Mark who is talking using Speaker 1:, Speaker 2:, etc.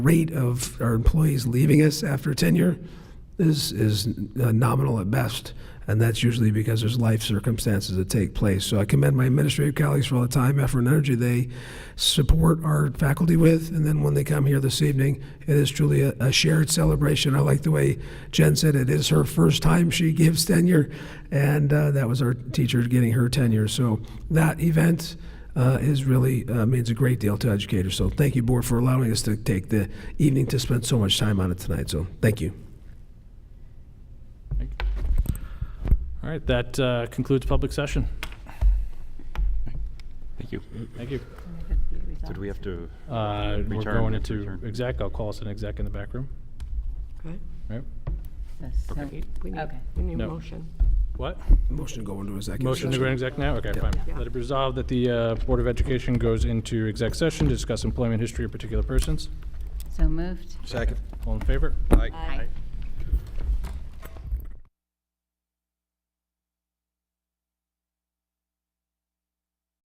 Speaker 1: rate of our employees leaving us after tenure is, is uh, nominal at best, and that's usually because there's life circumstances that take place. So I commend my administrative colleagues for all the time, effort, and energy they support our faculty with, and then when they come here this evening, it is truly a, a shared celebration. I like the way Jen said it is her first time she gives tenure, and uh, that was our teacher getting her tenure. So that event uh, is really uh, means a great deal to educators. So thank you, board, for allowing us to take the evening to spend so much time on it tonight. So thank you.
Speaker 2: All right, that uh, concludes public session.
Speaker 3: Thank you.
Speaker 2: Thank you.
Speaker 3: Did we have to,
Speaker 2: Uh, We're
Speaker 3: Return,
Speaker 2: going into
Speaker 3: return.
Speaker 2: exec. I'll call us an exec in the back room. Right?
Speaker 3: Okay.
Speaker 4: We need,
Speaker 5: Okay.
Speaker 4: we need a
Speaker 2: No.
Speaker 4: motion.
Speaker 2: What?
Speaker 1: Motion to go into executive
Speaker 2: Motion to
Speaker 1: session.
Speaker 2: go into exec now? Okay, fine.
Speaker 4: Yeah.
Speaker 2: Let it be resolved that the uh, Board of Education goes into exec session to discuss employment history of particular persons.
Speaker 5: So moved.
Speaker 6: Second.
Speaker 2: All in favor?
Speaker 6: Aye.
Speaker 5: Aye.